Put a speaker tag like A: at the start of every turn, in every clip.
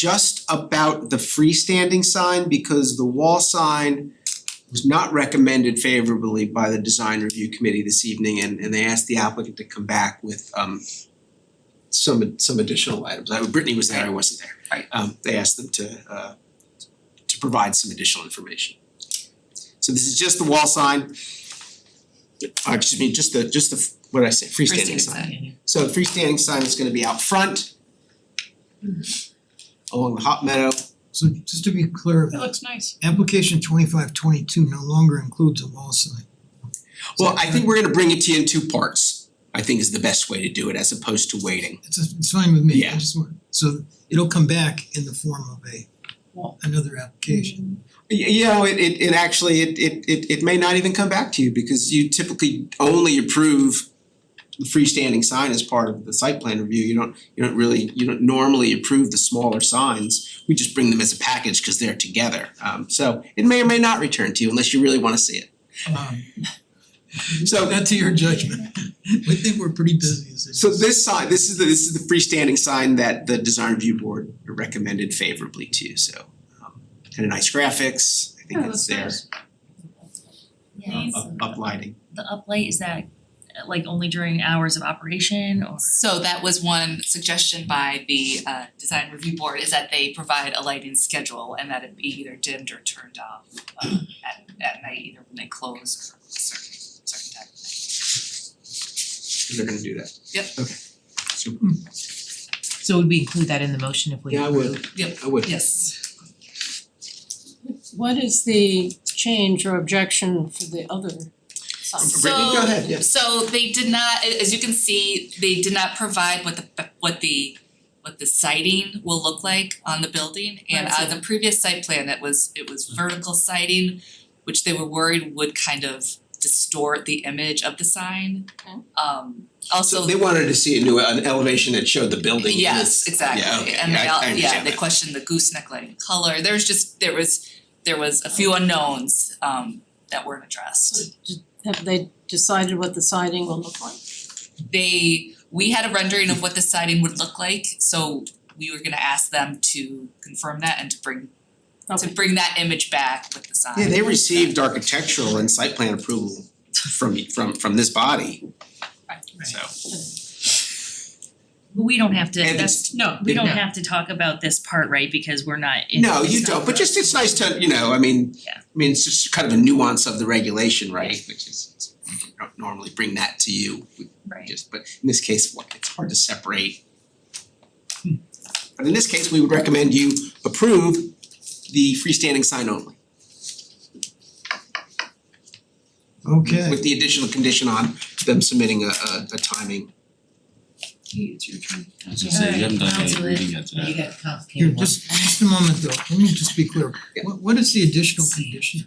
A: just about the freestanding sign because the wall sign was not recommended favorably by the design review committee this evening and and they asked the applicant to come back with um some some additional items. I Brittany was there, I wasn't there.
B: Right.
A: Um they asked them to uh to provide some additional information. So this is just the wall sign. Uh, excuse me, just the just the, what did I say, freestanding sign. So the freestanding sign is gonna be out front along the hot meadow.
C: So just to be clear,
D: That looks nice.
C: application twenty-five twenty-two no longer includes a wall sign.
A: Well, I think we're gonna bring it to you in two parts, I think is the best way to do it as opposed to waiting.
C: It's it's fine with me,
A: Yeah.
C: I just want, so it'll come back in the form of a another application.
A: Y- You know, it it it actually, it it it it may not even come back to you because you typically only approve the freestanding sign as part of the site plan review, you don't, you don't really, you don't normally approve the smaller signs. We just bring them as a package because they're together, um so it may or may not return to you unless you really wanna see it. Mm-hmm.
C: Um
A: So
C: that to your judgment, we think we're pretty busy as it is.
A: So this sign, this is the, this is the freestanding sign that the design review board recommended favorably to, you. so. um, Kind of nice graphics, I think
D: Yeah,
A: it's
D: that's
A: there,
D: nice.
E: Yeah,
A: um, up uplighting.
E: the uplight, is that uh, like only during hours of operation or?
B: So that was one suggestion by the uh design review board is that they provide a lighting schedule and that it be either dimmed or turned off uh at at night, either when they close or a certain certain time of night.
A: They're gonna do that.
B: Yep.
A: Okay. Super.
F: So would we include that in the motion if we
A: Yeah, I
F: approve?
A: would.
B: Yep.
A: I would.
B: Yes.
G: What is the change or objection for the other sign?
A: Brittany, go ahead, yeah.
B: So so they did not, a- as you can see, they did not provide what the what the what the siding will look like on the building and
E: Right.
B: on the previous site plan, it was it was vertical siding, which they were worried would kind of distort the image of the sign.
G: Okay.
B: Um also
A: So they wanted to see a new, an elevation that showed the building.
B: Yes,
A: Yeah,
B: exactly,
A: okay,
B: and
A: yeah, I- I
B: they all, yeah,
A: understand
B: they
A: that.
B: questioned the gooseneck lighting color, there's just, there was, there was a few unknowns um that weren't addressed.
G: Have they decided what the siding will look like?
B: They, we had a rendering of what the siding would look like, so we were gonna ask them to confirm that and to bring, to
G: Okay.
B: bring that image back with the sign.
A: Yeah, they received architectural and site plan approval from from from this body, so.
E: But we don't have to,
A: And
E: that's,
A: it's-
D: No,
E: we don't
F: No.
E: have to talk about this part, right, because we're not in,
A: No,
E: it's
A: you
E: not
A: don't, but
E: the-
A: just it's nice to, you know, I mean,
E: Yeah.
A: I mean, it's just kind of a nuance of the regulation, right? Which is, we don't normally bring that to you, we
E: Right,
A: just, but in this case, what- it's hard to separate. But in this case, we would recommend you approve the freestanding sign only,
C: Okay,
A: with the additional condition on them submitting a a a timing.
B: It's your turn.
H: I was gonna say, you haven't done any
E: Alright,
H: reading yet today.
F: You got a
C: here,
F: complicated one.
C: just just a moment though, let me just be clear,
A: Yeah.
C: what what is the additional condition?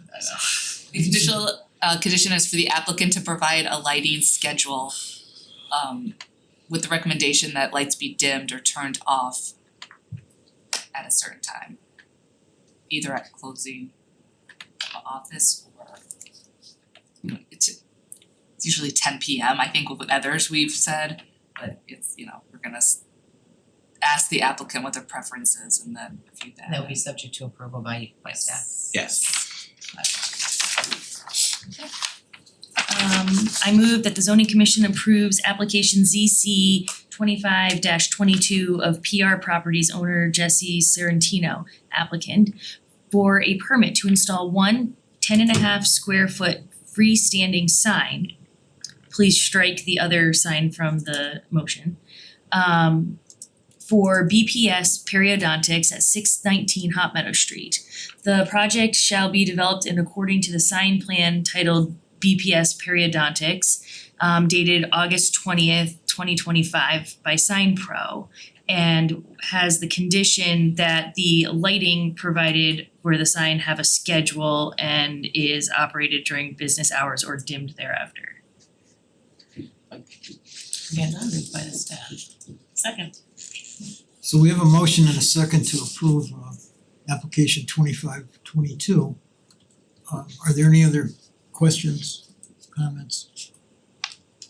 B: The conditional uh condition is for the applicant to provide a lighting schedule um with the recommendation that lights be dimmed or turned off at a certain time. Either at closing of a office or you know, it's it's usually ten P M, I think with others we've said, but it's, you know, we're gonna s- ask the applicant what their preference is and then review that.
F: That would be subject to approval by by staff.
A: Yes.
E: um, I move that the zoning commission approves application ZC twenty-five twenty-two of PR Properties owner Jesse Sorrentino applicant for a permit to install one 10 and a half square foot freestanding sign. Please strike the other sign from the motion. Um, for BPS Periodontics at six nineteen Hot Meadow Street. The project shall be developed in according to the sign plan titled BPS Periodontics um, dated August twentieth, twenty twenty-five by Sign Pro and has the condition that the lighting provided where the sign have a schedule and is operated during business hours or dimmed thereafter.
F: Yeah, not moved by the staff.
E: Second.
C: So we have a motion and a second to approve uh application twenty-five twenty-two. Um, Uh are there any other questions, comments?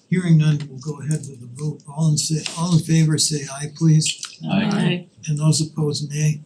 C: Hearing none, we'll go ahead with the vote. All in say, all in favor, say aye please,
D: Aye.
G: Aye.
C: and those opposed, nay.